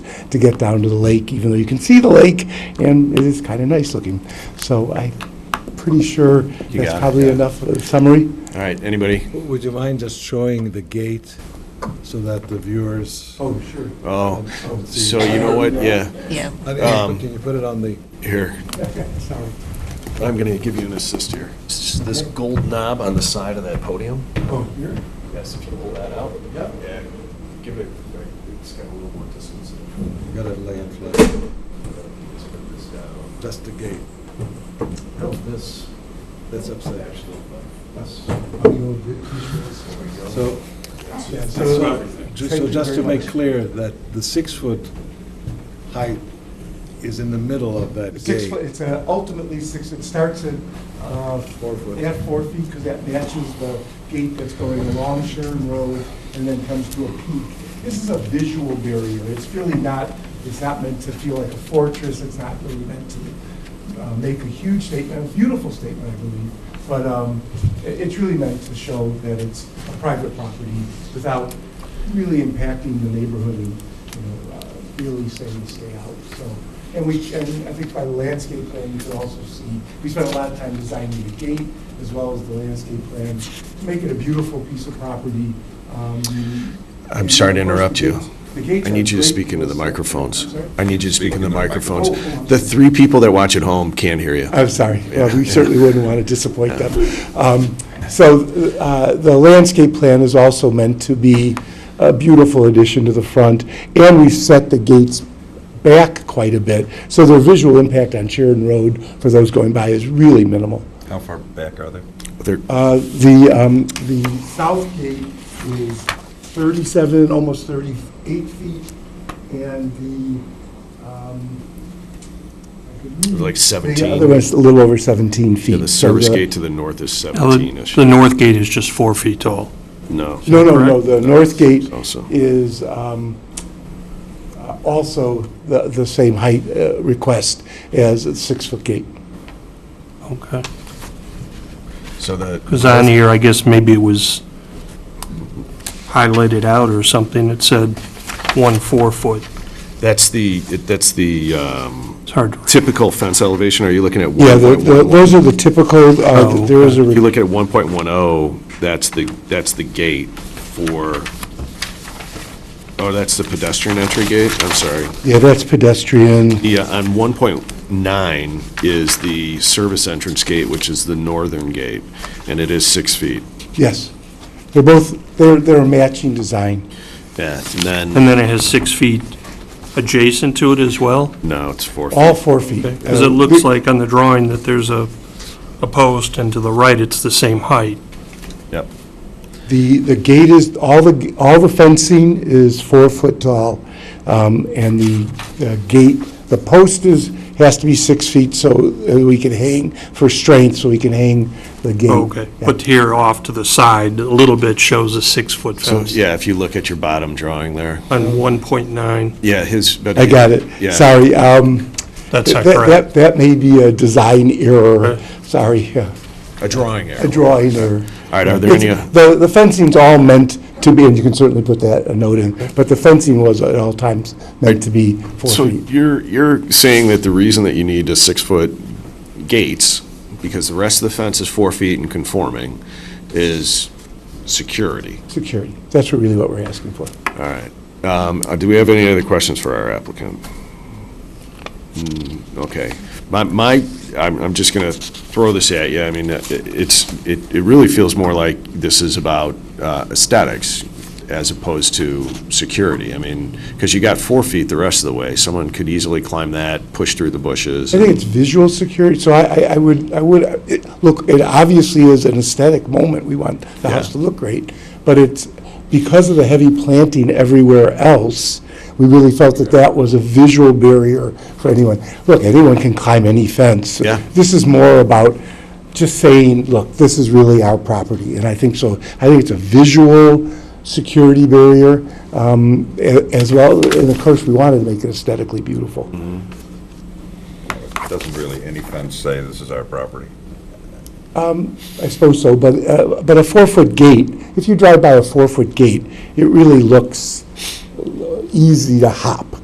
to get down to the lake, even though you can see the lake, and it is kind of nice looking. So I'm pretty sure You that's got it, probably yeah. enough of a summary. All right, anybody? Would you mind just showing the gate so that the viewers? Oh, sure. Oh, can see? so you know what, yeah, Yeah. I think- um, Can you put it on the, here, Sorry. I'm going to give you an assist here. It's just This gold knob on the side of that podium? Oh, here? Yes, if you pull that out. Yep. Yeah, give it, it's got a little more distance. you gotta lay it flat, This just the gate. No, this, That's upstairs. actually, So, so, ju- so just to make clear that the six-foot height is in the middle of that Six foot, gate. it's uh, ultimately six, it starts at, uh, Four foot. at four feet, because that matches the gate that's going along Sharon Road and then comes to a peak. This is a visual barrier, it's really not, it's not meant to feel like a fortress, it's not really meant to uh, make a huge statement, a beautiful statement, I believe, but um, i- it's really meant to show that it's a private property without really impacting the neighborhood and, you know, uh, really saying stay out, so. And we, and I think by the landscape plan, you can also see, we spent a lot of time designing the gate as well as the landscape plan, to make it a beautiful piece of property. um, I'm sorry to and of course, interrupt the you. gates- the gates I need are you to great speak into the tools. microphones. I'm sorry? I need you to speak into the microphones. microphone. The three people that watch at home can't hear you. I'm sorry. Well, we Yeah. certainly wouldn't want to disappoint them. Um, So uh, the landscape plan is also meant to be a beautiful addition to the front, and we've set the gates back quite a bit, so the visual impact on Sheridan Road for those going by is really minimal. How far back are they? They're- Uh, The, um, the south gate is 37, almost 38 feet, and the, um, I could read- Like 17. The other one's a little over 17 feet. yeah, The So service gate to the north is 17-ish. Oh, The north gate is just four feet tall. No. No, no, no, the north gate Also. is um, uh, also the the same height uh, request as a six-foot gate. Okay. So the. Because on here, I guess maybe it was highlighted out or something. It said one four-foot. That's the, that's the um, It's hard to typical fence elevation. Are you looking at Yeah, the- the- 1.11? those are the typical, uh, Oh, there is a If re- you look at 1.10, oh, that's the, that's the gate for, oh, that's the pedestrian entry gate? I'm sorry. yeah, that's pedestrian, Yeah, on 1.9 is the service entrance gate, which is the northern gate, and it is six feet. yes. They're both, they're they're a matching design. Yeah, and then, And then it has six feet adjacent to it as well? no, it's four feet. All four feet. Uh, Because it looks like on the drawing that there's a, a post, and to the right, it's the same height. Yep. The, the gate is, all the, all the fencing is four foot tall, um, and the uh, gate, the post is, has to be six feet so uh, we can hang, for strength, so we can hang the gate. Oh, Okay. Yeah. But here off to the side, a little bit shows a six-foot So, fence yeah, if you look at your bottom drawing there, on 1.9. yeah, his. but- I got it. Yeah. Sorry. um, That's not that- correct. That, that may be a design error, Right. sorry, yeah, A drawing error. a drawing error. All right, are there any, It's- The, the fencing's all meant to be, and you can certainly put that a note in, but the fencing was at all times meant to be four so feet. you're, you're saying that the reason that you need a six-foot gates, because the rest of the fence is four feet and conforming, is security? Security. That's what- really what we're asking for. All right. Um, uh, Do we have any other questions for our applicant? Hmm, Okay. My, my, I'm, I'm just going to throw this at you. I mean, uh, it- it's, it, it really feels more like this is about uh, aesthetics as opposed to security. I mean, because you got four feet the rest of the way. Someone could easily climb that, push through the bushes. I think it's visual security, so I, I- I would, I would, it- look, it obviously is an aesthetic moment, we want the house Yeah. to look great, but it's, because of the heavy planting everywhere else, we really felt that that was a visual barrier for anyone. Look, anyone can climb any fence. Yeah. This is more about just saying, look, this is really our property, and I think so, I think it's a visual security barrier, um, a- as well, and of course, we wanted to make it aesthetically beautiful. Mm-hmm. Doesn't really any fence say this is our property. Um, I suppose so, but, uh, but a four-foot gate, if you drive by a four-foot gate, it really looks easy to hop.